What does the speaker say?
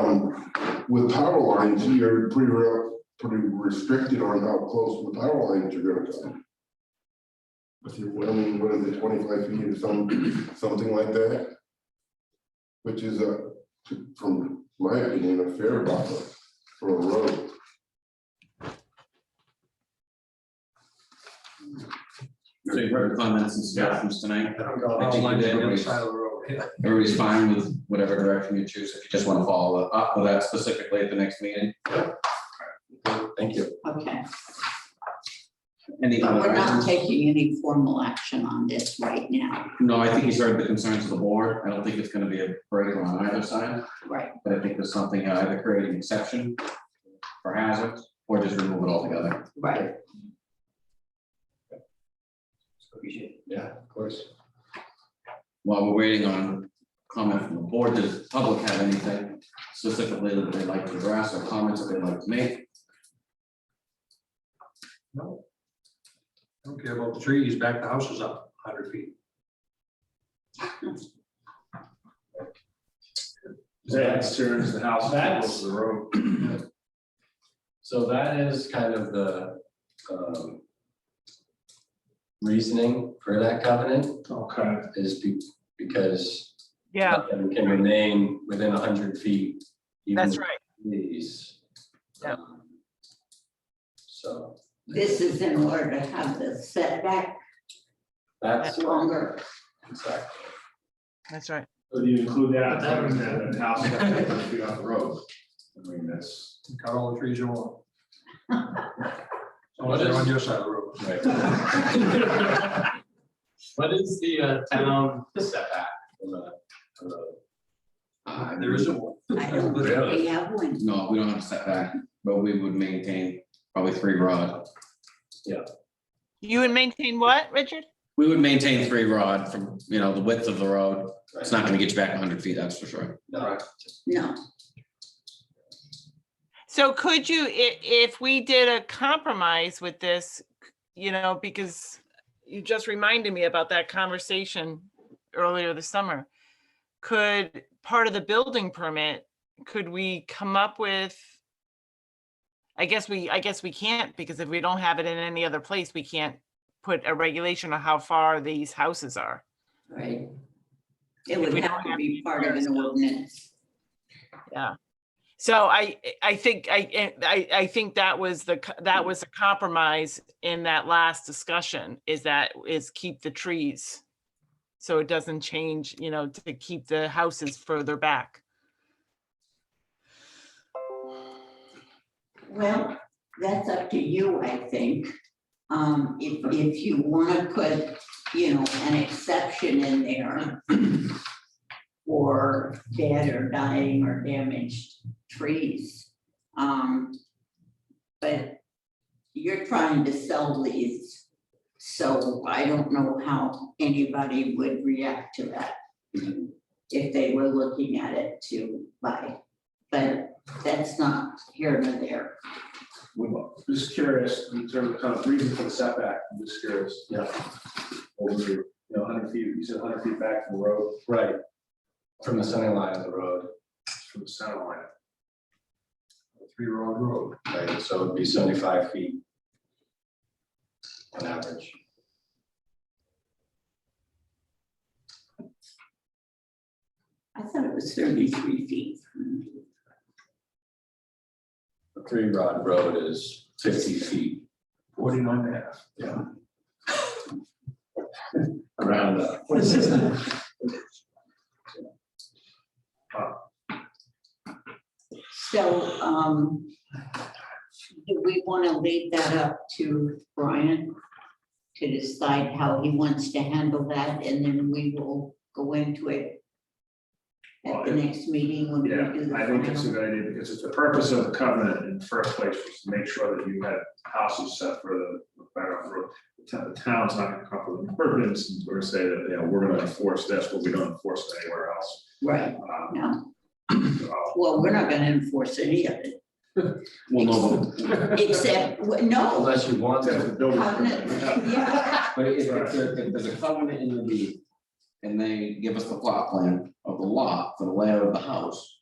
Um, with power lines, you're pretty, re- pretty restricted on how close the power lines are gonna come. If you're willing, what is it, twenty-five feet or some, something like that? Which is a, from my opinion, a fair buffer for a road. So you've heard the comments and suggestions tonight. I think Outlined you did. every side of the road, yeah. Everybody's fine with whatever direction you choose. If you just want to follow up uh, with that specifically at the next meeting. Thank you. Okay, Any but other we're not items? taking any formal action on this right now, No, I think he's heard the concerns of the board. I don't think it's going to be a break on either side, right? but I think there's something uh, either creating an exception for hazards or just remove it altogether. Right. Yeah, of course. While we're waiting on comment from the board, does the public have anything specifically that they'd like to address or comments that they'd like to make? No. I Don't care about the trees, back the house is up hundred feet. That's true, it's the house that That's- goes to the road. So that is kind of the um, reasoning for that covenant Okay. is be- because Yeah, nothing can remain within hundred feet. even that's if right. These. Yeah. um, So This is in order to have the setback that's longer. exactly. That's right. So do you include But that, that was- that the house that goes hundred feet off the road? I mean, that's. Cut all the trees you want. What Unless they're is- on your side of the road. right. What is the uh, town setback? from the- from the- Uh, There isn't one. I don't think Really? we have one. No, we don't have a setback, but we would maintain probably three rod. You would maintain what, Richard? We would maintain three rod from, you know, the width of the road. It's not gonna get you back hundred feet, that's for sure. No, No, So could you, i- if we did a compromise with this, you know, because you just reminded me about that conversation earlier this summer. Could, part of the building permit, could we come up with? I guess we, I guess we can't, because if we don't have it in any other place, we can't put a regulation on how far these houses are. right? It If would we don't have to have be any part of an ordinance. So I, I think, I, I, I think that was the, co- that was a compromise in that last discussion, is that, is keep the trees. So it doesn't change, you know, to keep the houses further back. Well, that's up to you, I think. Um, if, if you wanna put, you know, an exception in there for dead or dying or damaged trees. Um, but you're trying to sell these, so I don't know how anybody would react to that if they were looking at it to buy. But that's not here nor there. I'm Just curious, in terms of kind of reason for the setback, I'm just curious. Yeah. Over, you know, hundred feet, you said hundred feet back from the road, right. From the center line of the road, from the center line. Three road road. right, so it'd be seventy-five feet. On average. I thought it was thirty-three feet. A three rod road is fifty feet. Forty-nine and a half. Yeah. Around that. So, um, do we want to leave that up to Brian to decide how he wants to handle that, and then we will go into it at the next meeting when we Yeah, do the I think it's a final? good idea, because it's the purpose of the covenant in the first place, was to make sure that you had houses set for the, the fire on the road. The town- The town's not gonna come up with an ordinance, and we're gonna say that, you know, we're gonna enforce this, but we don't enforce it anywhere else. Right, Um, no, uh, well, we're not gonna enforce any of it, Well, no, except, w- no, Unless you want that's the to, building Covenant, permit. yeah, but if, if there- if there's a covenant in the deed and they give us the plot plan of the lot for the layout of the house,